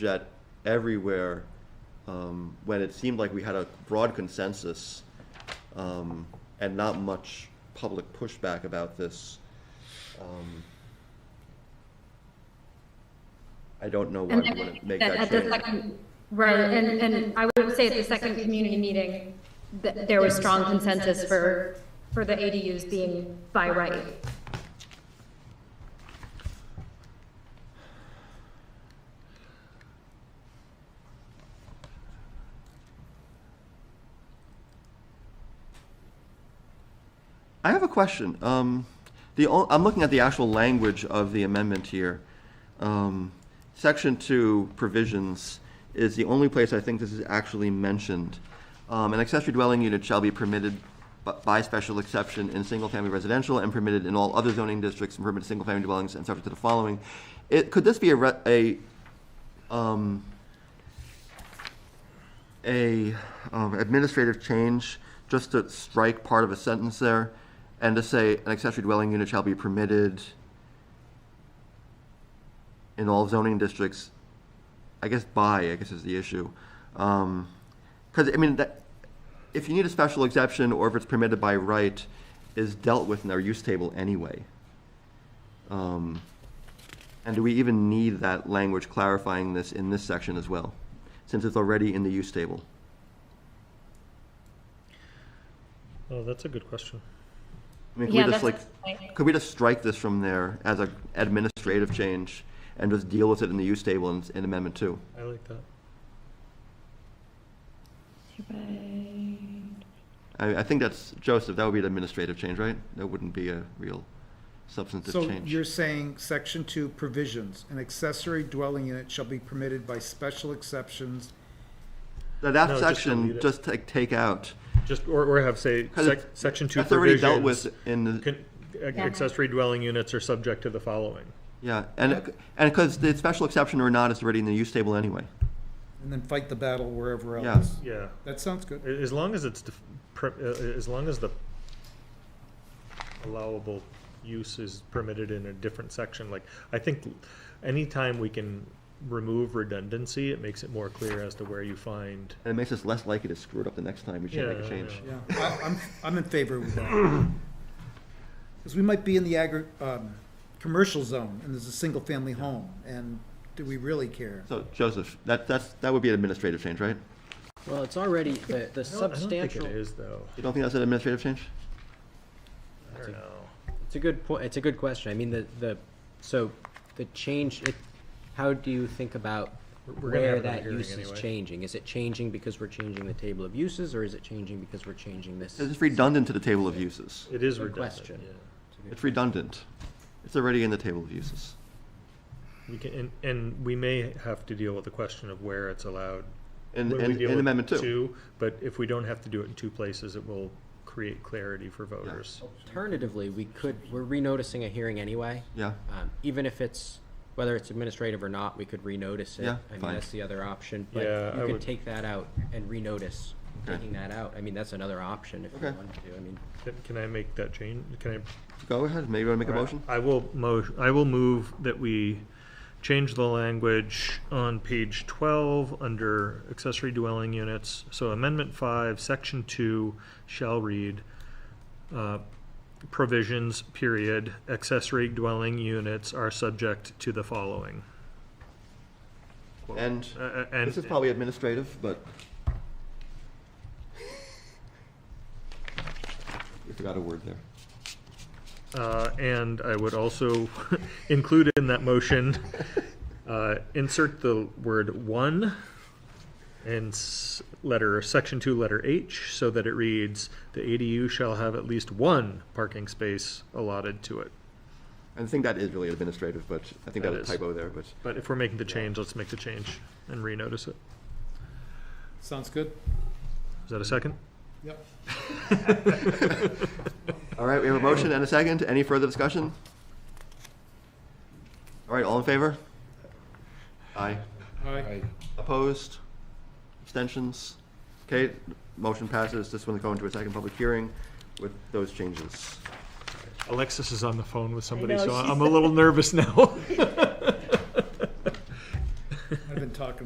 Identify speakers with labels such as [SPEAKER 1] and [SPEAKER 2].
[SPEAKER 1] that everywhere um, when it seemed like we had a broad consensus um, and not much public pushback about this. Um, I don't know why
[SPEAKER 2] And
[SPEAKER 1] we
[SPEAKER 2] I
[SPEAKER 1] want to
[SPEAKER 2] think
[SPEAKER 1] make
[SPEAKER 2] that
[SPEAKER 1] that
[SPEAKER 2] at the
[SPEAKER 1] change.
[SPEAKER 2] second, right, and, and I would say at the second community meeting, that there was strong consensus for, for the ADUs being by right.
[SPEAKER 1] I have a question. Um, the, o- I'm looking at the actual language of the amendment here. Um, Section two provisions is the only place I think this is actually mentioned. Um, an accessory dwelling unit shall be permitted bu- by special exception in single-family residential and permitted in all other zoning districts and permitted single-family dwellings and subject to the following. It, could this be a, re- a, um, a um, administrative change, just to strike part of a sentence there, and to say an accessory dwelling unit shall be permitted in all zoning districts, I guess by, I guess is the issue. Because, I mean, that, if you need a special exception, or if it's permitted by right, is dealt with in our use table anyway. Um, and do we even need that language clarifying this in this section as well, since it's already in the use table?
[SPEAKER 3] Oh, that's a good question.
[SPEAKER 1] I mean, could
[SPEAKER 2] Yeah,
[SPEAKER 1] we just
[SPEAKER 2] that's
[SPEAKER 1] like, could we just strike this from there as a administrative change and just deal with it in the use table in, in Amendment Two?
[SPEAKER 3] I like that.
[SPEAKER 1] I, I think that's Joseph. That would be an administrative change, right? That wouldn't be a real substantive
[SPEAKER 4] So
[SPEAKER 1] change.
[SPEAKER 4] you're saying section two provisions, an accessory dwelling unit shall be permitted by special exceptions.
[SPEAKER 1] Now, that
[SPEAKER 3] No, just delete
[SPEAKER 1] section
[SPEAKER 3] it.
[SPEAKER 1] just take, take out
[SPEAKER 3] Just, or, or have, say,
[SPEAKER 1] 'Cause
[SPEAKER 3] sec-
[SPEAKER 1] it's-
[SPEAKER 3] section two
[SPEAKER 1] that's already dealt
[SPEAKER 3] provisions.
[SPEAKER 1] with in the
[SPEAKER 3] con- ac- Accessory dwelling units are subject to the following.
[SPEAKER 1] yeah, and it- and because the special exception or not is already in the use table anyway.
[SPEAKER 4] And then fight the battle wherever
[SPEAKER 1] Yeah.
[SPEAKER 4] else.
[SPEAKER 3] Yeah,
[SPEAKER 4] That sounds good.
[SPEAKER 3] A- as long as it's, def- per- uh, uh, as long as the allowable use is permitted in a different section, like, I think anytime we can remove redundancy, it makes it more clear as to where you find.
[SPEAKER 1] And it makes us less likely to screw it up the next time we should
[SPEAKER 3] Yeah,
[SPEAKER 1] make a
[SPEAKER 3] I
[SPEAKER 1] change.
[SPEAKER 3] know.
[SPEAKER 4] Yeah, I- I'm, I'm in favor of that. Because we might be in the agri, um, commercial zone and there's a single family home and do we really care?
[SPEAKER 1] So Joseph, that that's that would be an administrative change, right?
[SPEAKER 5] Well, it's already, the, the
[SPEAKER 3] I don't- I don't think
[SPEAKER 5] substantial,
[SPEAKER 3] It is, though.
[SPEAKER 1] You don't think that's an administrative change?
[SPEAKER 3] I don't know.
[SPEAKER 5] it's a good point, it's a good question. I mean, the, the, so the change, it, how do you think about
[SPEAKER 3] We're- we're gonna have
[SPEAKER 5] where
[SPEAKER 3] another
[SPEAKER 5] that
[SPEAKER 3] hearing
[SPEAKER 5] use is
[SPEAKER 3] anyway.
[SPEAKER 5] changing? Is it changing because we're changing the table of uses, or is it changing because we're changing this?
[SPEAKER 1] It's redundant to the table of uses.
[SPEAKER 3] It is
[SPEAKER 5] Good
[SPEAKER 3] redundant,
[SPEAKER 5] question.
[SPEAKER 3] yeah.
[SPEAKER 1] It's redundant. It's already in the table of uses.
[SPEAKER 3] We can, and, and we may have to deal with the question of where it's allowed.
[SPEAKER 1] In,
[SPEAKER 3] when we
[SPEAKER 1] in,
[SPEAKER 3] deal
[SPEAKER 1] in
[SPEAKER 3] with
[SPEAKER 1] Amendment two.
[SPEAKER 3] But if we don't have to do it in two places, it will create clarity for voters.
[SPEAKER 5] Alternatively, we could, we're renoticing a hearing anyway.
[SPEAKER 1] Yeah,
[SPEAKER 5] Um, even if it's, whether it's administrative or not, we could renotice it.
[SPEAKER 1] Yeah,
[SPEAKER 5] I
[SPEAKER 1] fine.
[SPEAKER 5] mean, that's the other option,
[SPEAKER 3] Yeah,
[SPEAKER 5] but
[SPEAKER 3] I
[SPEAKER 5] you could
[SPEAKER 3] would-
[SPEAKER 5] take that out and renotice,
[SPEAKER 1] Okay.
[SPEAKER 5] taking that out. I mean, that's another option if you
[SPEAKER 1] Okay.
[SPEAKER 5] wanted to, I mean.
[SPEAKER 3] Can- Can I make that change? Can I?
[SPEAKER 1] go ahead, maybe you want to make a
[SPEAKER 3] Alright,
[SPEAKER 1] motion?
[SPEAKER 3] I will mo, I will move that we change the language on page twelve under accessory dwelling units. So amendment five, section two shall read, uh, provisions, period, accessory dwelling units are subject to the following. Quote.
[SPEAKER 1] And
[SPEAKER 3] Uh, uh, and.
[SPEAKER 1] this is probably administrative, but. You forgot a word there.
[SPEAKER 3] Uh, And I would also include in that motion, uh, insert the word one and s- letter, section two, letter H, so that it reads, "The ADU shall have at least one parking space allotted to it."
[SPEAKER 1] I think that is really administrative, but I think
[SPEAKER 3] That
[SPEAKER 1] that was a
[SPEAKER 3] is.
[SPEAKER 1] typo there, but.
[SPEAKER 3] But if we're making the change, let's make the change and renotice it.
[SPEAKER 4] Sounds good?
[SPEAKER 3] Is that a second?
[SPEAKER 4] Yep.
[SPEAKER 1] All right, we have a motion and a second. Any further discussion? All right, all in favor? Aye.
[SPEAKER 4] All right.
[SPEAKER 1] Opposed? Abstentions? Okay, motion passes. This one will go into a second public hearing with those changes.
[SPEAKER 3] Alexis is on the phone with somebody,
[SPEAKER 6] know,
[SPEAKER 3] so
[SPEAKER 6] she's-
[SPEAKER 3] I'm a little nervous now.
[SPEAKER 4] I've been talking